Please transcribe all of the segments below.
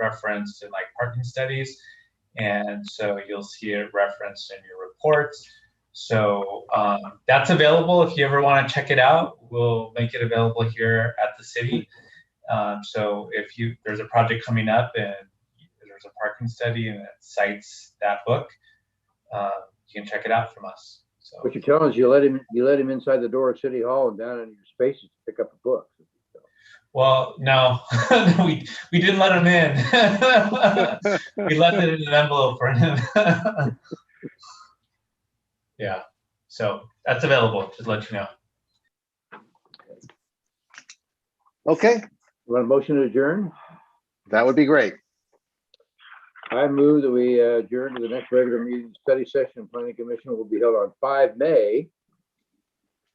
referenced in like parking studies. And so you'll see it referenced in your reports. So um, that's available. If you ever want to check it out, we'll make it available here at the city. Um, so if you there's a project coming up and there's a parking study and it cites that book, uh, you can check it out from us. So What you're telling us, you let him, you let him inside the door at City Hall and down into your spaces to pick up a book. well, no, we we didn't let him in. we left it in an envelope for him. yeah. So that's available. Just let you know. Okay, Want a motion to adjourn? that would be great. I move that we uh, adjourn to the next regular meeting, study session, planning commission will be held on five May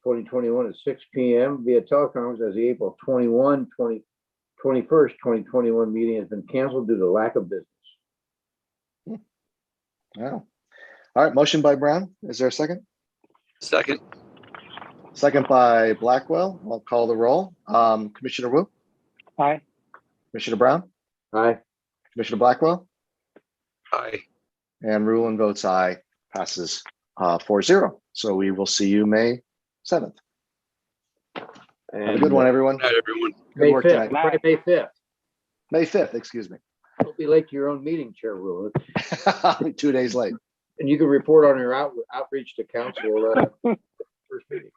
twenty twenty-one at six P M via teleconference as the April 21, 20 21st, twenty twenty-one meeting has been canceled due to lack of business. Wow. All right, motion by Brown. Is there a second? Second, Second by Blackwell. I'll call the roll. Um, Commissioner Wu? Aye. Commissioner Brown? Aye, Commissioner Blackwell? aye. And Rulon votes aye, passes uh four zero. So we will see you May seventh. Have a good one, everyone. Good night, everyone. May Good work fifth, tonight. Friday, May fifth. May fifth, excuse me. Don't be late to your own meeting, Chair Rule. Two days late. And you can report on your out- outreach to council. uh, First meeting.